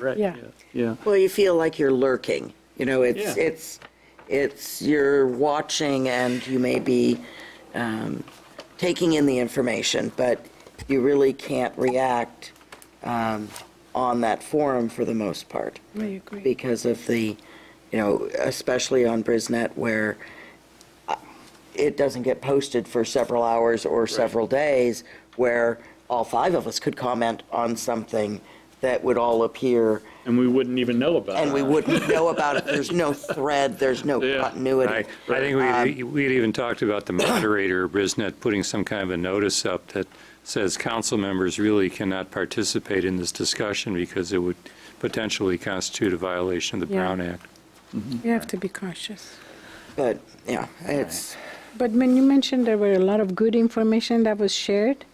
Right, Yeah. yeah, yeah. Well, you feel like you're lurking. You know, it's Yeah. it's it's you're watching, and you may be um, taking in the information, but you really can't react um, on that forum for the most part I agree. because of the, you know, especially on Brisnet where uh, it doesn't get posted for several hours or several days, where all five of us could comment on something that would all appear And we wouldn't even know about it. and we Uh-huh. wouldn't know about it. There's no thread, there's no Yeah. I, I continuity. Um, think we, we'd even talked about the moderator, Brisnet, putting some kind of a notice up that says council members really cannot participate in this discussion because it would potentially constitute a violation of the Yeah. Brown Act. You have to be cautious. But, yeah, it's, But when you mentioned there were a lot of good information that was shared,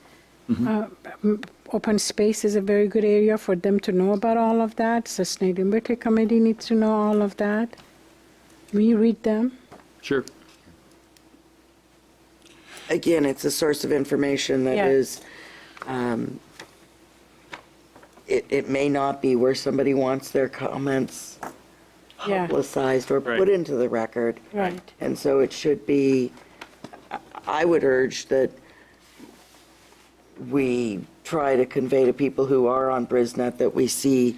Mm-hmm. uh, m- open space is a very good area for them to know about all of that. Sustainability Committee needs to know all of that. We read them. Sure. again, it's a source of information that Yeah. is, um, it, it may not be where somebody wants their comments Yeah. publicized or put Right. into the record. Right. And so it should be, I would urge that we try to convey to people who are on Brisnet that we see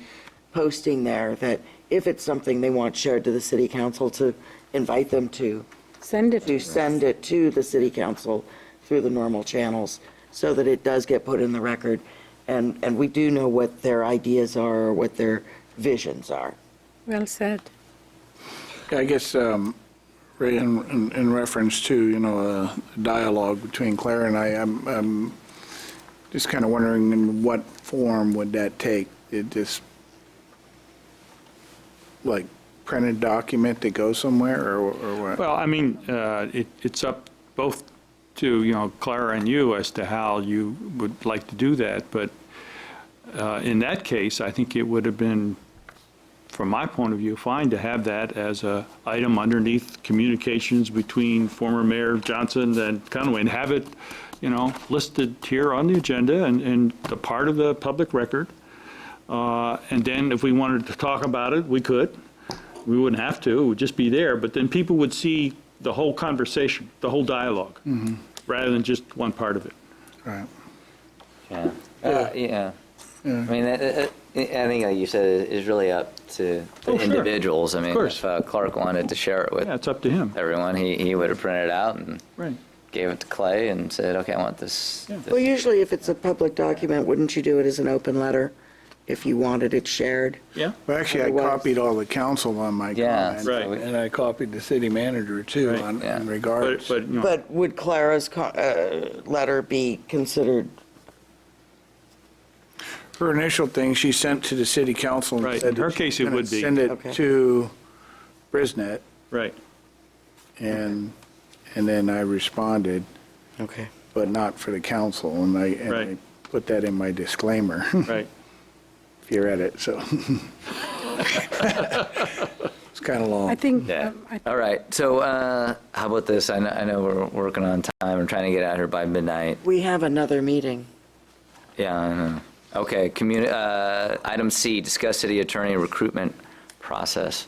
posting there, that if it's something they want shared to the city council, to invite them to, Send it. to send it to the city council through the normal channels, so that it does get put in the record, and, and we do know what their ideas are, or what their visions are. Well said. Yeah, I guess, um, Ray, in, in- in reference to, you know, uh, dialogue between Claire and I, I'm, I'm just kind of wondering in what form would that take? It just, like, printed document that goes somewhere, or or what? Well, I mean, uh, it- it's up both to, you know, Clara and you as to how you would like to do that, but uh, in that case, I think it would have been, from my point of view, fine to have that as a item underneath communications between former Mayor Johnson and Conway, and have it, you know, listed here on the agenda and- and the part of the public record. Uh, And then if we wanted to talk about it, we could. We wouldn't have to, it would just be there, but then people would see the whole conversation, the whole dialogue, rather than just one part of it. Right. Yeah, Uh, yeah. I mean, that- that- I think, like you said, it is really up to the Oh, sure. individuals. I mean, course. if uh, Clark wanted to share it with Yeah, it's up to him. everyone, he, he would have printed it out and Right. gave it to Clay and said, okay, I want this. Yeah. Well, this." usually if it's a public document, wouldn't you do it as an open letter if you wanted it shared? Yeah, Well, actually, I Otherwise- copied all the council on my Yeah, comment. Right. And I copied the city manager, too, Right. on- Yeah. in but, regards. but, you know, But would Clara's co- uh, letter be considered? Her initial thing, she sent to the city council. and Right. In said her that she case, was it gonna would be. Send Okay. it to Brisnet. right. And, and then I responded, Okay. but not for the council, and I, and I Right. put that in my disclaimer, Right. if you read it, so. It's kind of I long. think. Yeah. um, I- All right. So uh, how about this? I know, I know we're working on time. I'm trying to get out here by midnight. We have another meeting. Yeah, I know. Okay, communi, uh, item C, discuss city attorney recruitment process.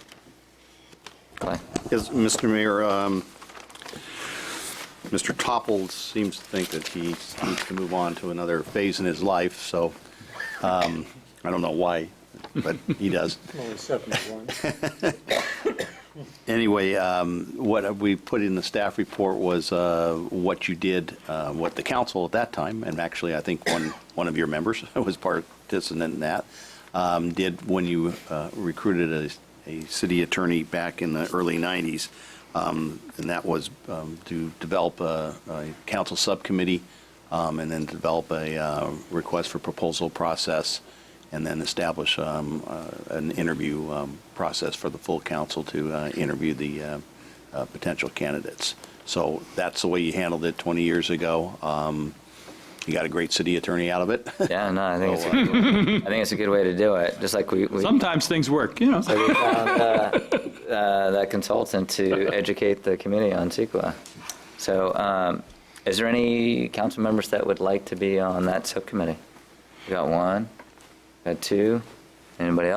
Clay? Yes, Mr. Mayor, um, Mr. Topple seems to think that he needs to move on to another phase in his life, so um, I don't know why, but he does. Anyway, um, what we put in the staff report was uh, what you did, uh, what the council at that time, and actually, I think one, one of your members was participant in that, um, did when you uh, recruited a, a city attorney back in the early 90s. um, And that was um, to develop a a council subcommittee um, and then develop a uh, request for proposal process and then establish um, uh, an interview um, process for the full council to uh, interview the uh, uh, potential candidates. So that's the way you handled it 20 years ago. Um, You got a great city attorney out of it. Yeah, no, I think it's, a good way- I think it's a good way to do it, just like we, we Sometimes things work, you know. we found uh, uh, that consultant to educate the committee on CEQA. So um, is there any council members that would like to be on that subcommittee? We got one, got two, anybody else?